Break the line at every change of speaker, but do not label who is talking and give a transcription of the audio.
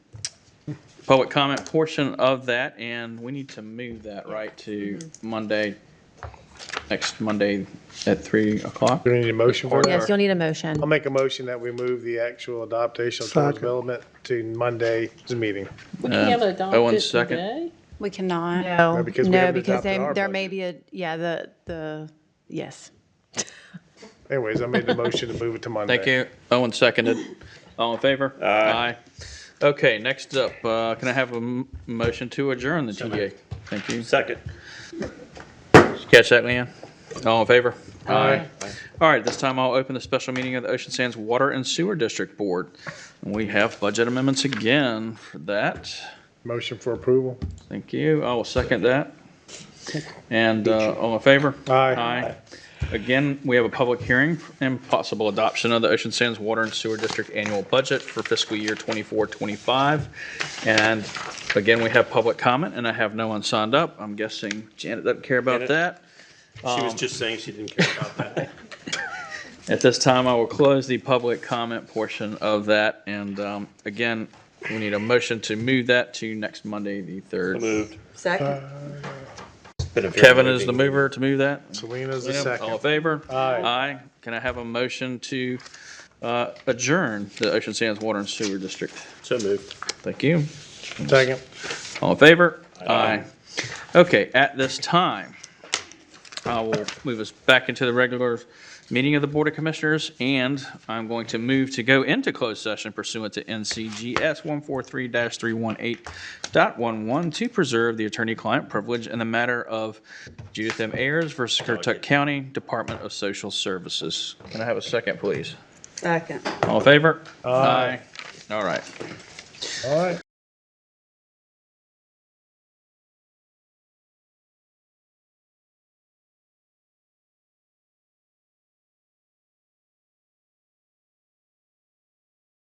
public comment portion of that, and we need to move that right to Monday, next Monday at 3 o'clock.
Do we need a motion for that?
Yes.
Yes, you'll need a motion.
I'll make a motion that we move the actual adaptation of
Second.
Tourist development to Monday's meeting.
We can't adopt
Owen's
it
second.
today.
We cannot.
No,
No,
because we
no,
haven't
because
adopted
they-
our
there may be a, yeah, the, the, yes.
Anyways, I made the motion to move it to Monday.
Thank you. Owen seconded. All in favor? Aye. Okay, next up, uh, can I have a m- motion to adjourn the TDA? Thank you.
Second.
Did you Catch that, Leanne? All in favor? Aye. All right, this time I'll open the special meeting of the Ocean Sands Water and Sewer District Board. We have budget amendments again for that.
Motion for approval.
Thank you. I will second that. And uh, all in favor?
Aye.
Aye. Again, we have a public hearing and possible adoption of the Ocean Sands Water and Sewer District Annual Budget for fiscal year 24, 25. And again, we have public comment, and I have no one signed up. I'm guessing Janet doesn't care about
Janet.
that.
She was just saying she didn't care about that.
At this time, I will close the public comment portion of that. And um, again, we need a motion to move that to next Monday, the 3rd.
Moved.
Second.
Been a very
Kevin is the
moving-
mover to move that?
Selena's the
Cleanup. All in
second.
favor?
Aye.
Aye. Can I have a motion to uh, adjourn the Ocean Sands Water and Sewer District?
So moved.
Thank you.
Second.
All in favor? Aye. Okay, at this time, I will move us back into the regular meeting of the Board of Commissioners, and I'm going to move to go into closed session pursuant to NCGS 143-318.11 to preserve the attorney-client privilege in the matter of Judith M. Ayers versus Currituck County Department of Social Services. Can I have a second, please?
Second.
All in favor? Aye. All right.
All right.